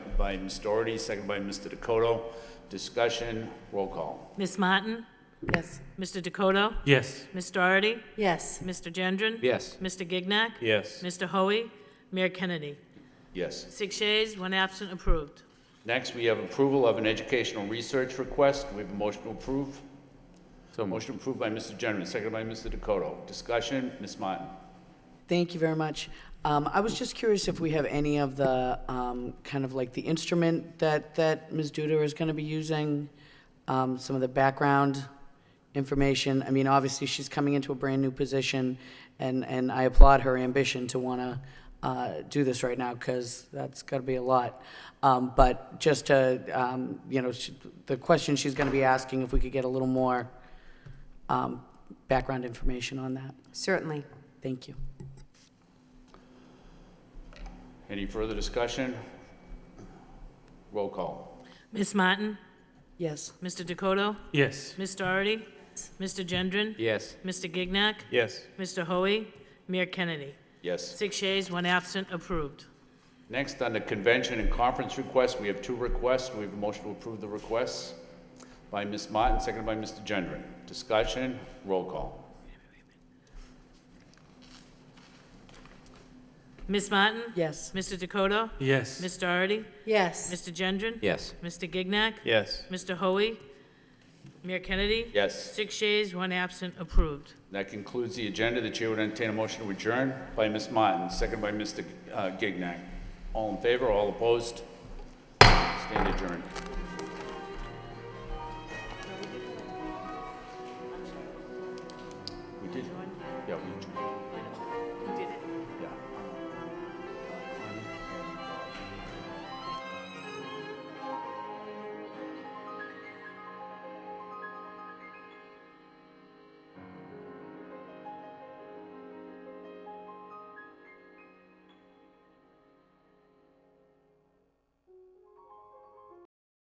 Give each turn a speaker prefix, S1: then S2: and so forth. S1: by Ms. Doherty, second by Mr. Dakota. Discussion, roll call.
S2: Ms. Martin?
S3: Yes.
S2: Mr. Dakota?
S4: Yes.
S2: Ms. Doherty?
S3: Yes.
S2: Mr. Gendron?
S1: Yes.
S2: Mr. Gignac?
S4: Yes.
S2: Mr. Hoey? Mayor Kennedy?
S1: Yes.
S2: Six yeas, one absent, approved.
S1: Next, we have approval of an educational research request. We have a motion to approve. So motion approved by Mr. Generman, seconded by Mr. Dakota. Discussion, Ms. Martin.
S3: Thank you very much. Um, I was just curious if we have any of the, um, kind of like the instrument that, that Ms. Duda is going to be using, um, some of the background information. I mean, obviously, she's coming into a brand-new position, and, and I applaud her ambition to want to uh, do this right now, because that's got to be a lot. Um, But just to, um, you know, she- the question she's going to be asking, if we could get a little more um, background information on that.
S5: Certainly.
S3: Thank you.
S1: Any further discussion? Roll call.
S2: Ms. Martin?
S3: Yes.
S2: Mr. Dakota?
S4: Yes.
S2: Ms. Doherty? Mr. Gendron?
S1: Yes.
S2: Mr. Gignac?
S4: Yes.
S2: Mr. Hoey? Mayor Kennedy?
S1: Yes.
S2: Six yeas, one absent, approved.
S1: Next, on the convention and conference request, we have two requests. We have a motion to approve the requests by Ms. Martin, seconded by Mr. Gendron. Discussion, roll call.
S2: Ms. Martin?
S3: Yes.
S2: Mr. Dakota?
S4: Yes.
S2: Ms. Doherty?
S5: Yes.
S2: Mr. Gendron?
S1: Yes.
S2: Mr. Gignac?
S4: Yes.
S2: Mr. Hoey? Mayor Kennedy?
S1: Yes.
S2: Six yeas, one absent, approved.
S1: That concludes the agenda. The chair would entertain a motion to adjourn by Ms. Martin, seconded by uh, Mr. Gignac. All in favor, all opposed? Stand adjourned.